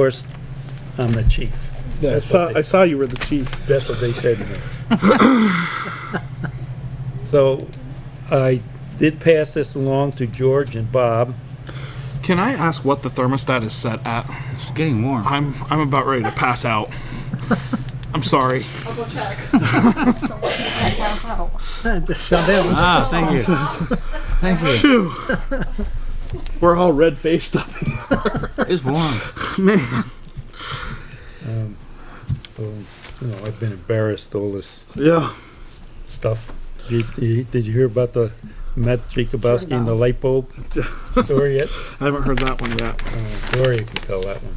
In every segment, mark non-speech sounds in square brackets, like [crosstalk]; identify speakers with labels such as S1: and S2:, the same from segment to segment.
S1: course, I'm the chief.
S2: I saw, I saw you were the chief.
S1: That's what they said to me. [laughs] So I did pass this along to George and Bob.
S2: Can I ask what the thermostat is set at?
S3: Getting warm.
S2: I'm, I'm about ready to pass out. I'm sorry.
S4: I'll go check. Pass out.
S3: Ah, thank you. Thank you.
S2: Phew.
S3: [laughs]
S2: We're all red faced up.
S3: It's warm.
S1: Um, You know, I've been embarrassed, all this
S2: Yeah.
S1: stuff. Did you did you hear about the Matt Jacobowski and the light bulb story yet?
S2: I haven't heard that one yet.
S1: Oh, Gloria can tell that one.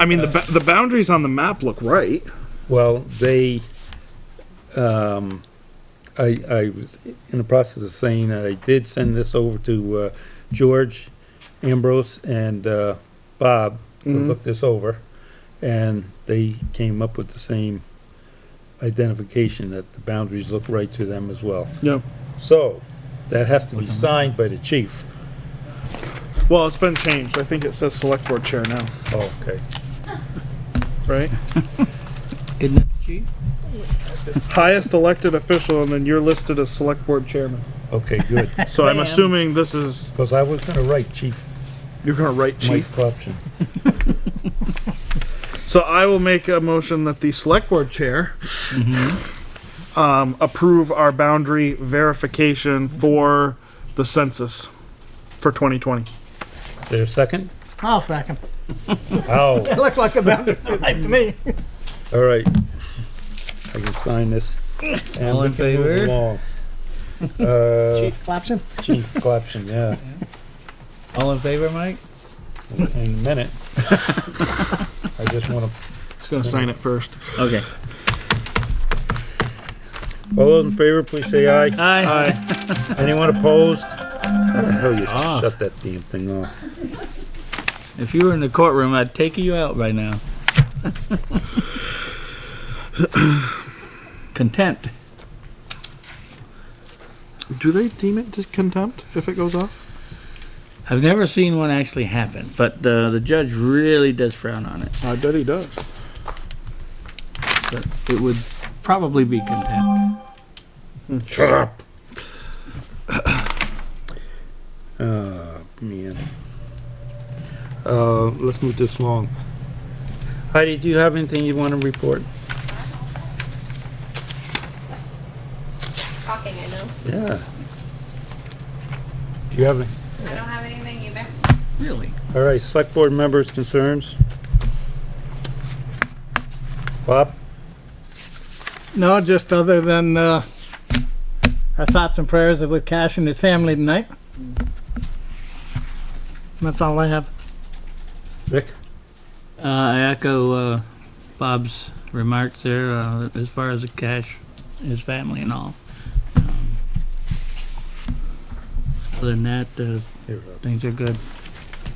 S2: I mean, the, ba- the boundaries on the map look right.
S1: Well, they, um, I, I was in the process of saying, I did send this over to, uh, George Ambrose and, uh, Bob to
S2: Mhm.
S1: look this over. And they came up with the same identification that the boundaries look right to them as well.
S2: Yeah.
S1: So, that has to be signed by the chief.
S2: Well, it's been changed. I think it says select board chair now,
S1: Okay.
S2: right?
S3: Isn't it cheap?
S2: Highest elected official, and then you're listed as select board chairman.
S1: Okay, good.
S2: So I'm
S4: Ma'am.
S2: assuming this is,
S1: Cause I was gonna write Chief
S2: you're gonna write
S1: Mike
S2: chief.
S1: Corruption.
S2: So I will make a motion that the select board chair um, approve our boundary verification for the census for 2020.
S1: There a second?
S5: I'll second.
S1: Ow.
S5: It [laughs] looks like a boundary's right to me.
S1: All right. I can sign this. and
S3: All
S1: we
S3: in
S1: can move
S3: favor?
S1: along.
S3: [laughs]
S1: Uh,
S5: Chief Clapson?
S1: Chief Clapson, yeah,
S3: All in favor, Mike?
S1: in a minute. I just wanna,
S2: Just gonna sign it first.
S3: Okay.
S1: all those in favor, please say aye.
S3: Aye.
S2: Aye.
S1: Anyone opposed? How the hell you
S3: Ah.
S1: shut that damn thing off?
S3: If you were in the courtroom, I'd take you out right now. [laughs] Contempt.
S2: Do they deem it to contempt if it goes off?
S3: I've never seen one actually happen, but uh, the the judge really does frown on it.
S2: I bet he does.
S3: But it would probably be contempt.
S1: Shut up. Uh, man. Uh, let's move this along. Heidi, do you have anything you wanna report?
S6: talking, I know.
S1: Yeah. Do you have any?
S6: I don't have anything either.
S3: Really?
S1: All right, select board members' concerns? Bob?
S5: No, just other than, uh, our thoughts and prayers are with Cash and his family tonight. That's all I have.
S1: Rick?
S3: Uh, I echo uh, Bob's remarks there uh, as far as the cash, his family, and all. Um, other than that, uh,
S1: Here, Rob.
S3: things are good.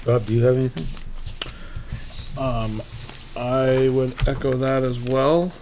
S1: Rob, do you have anything?
S2: Um, I would echo that as well.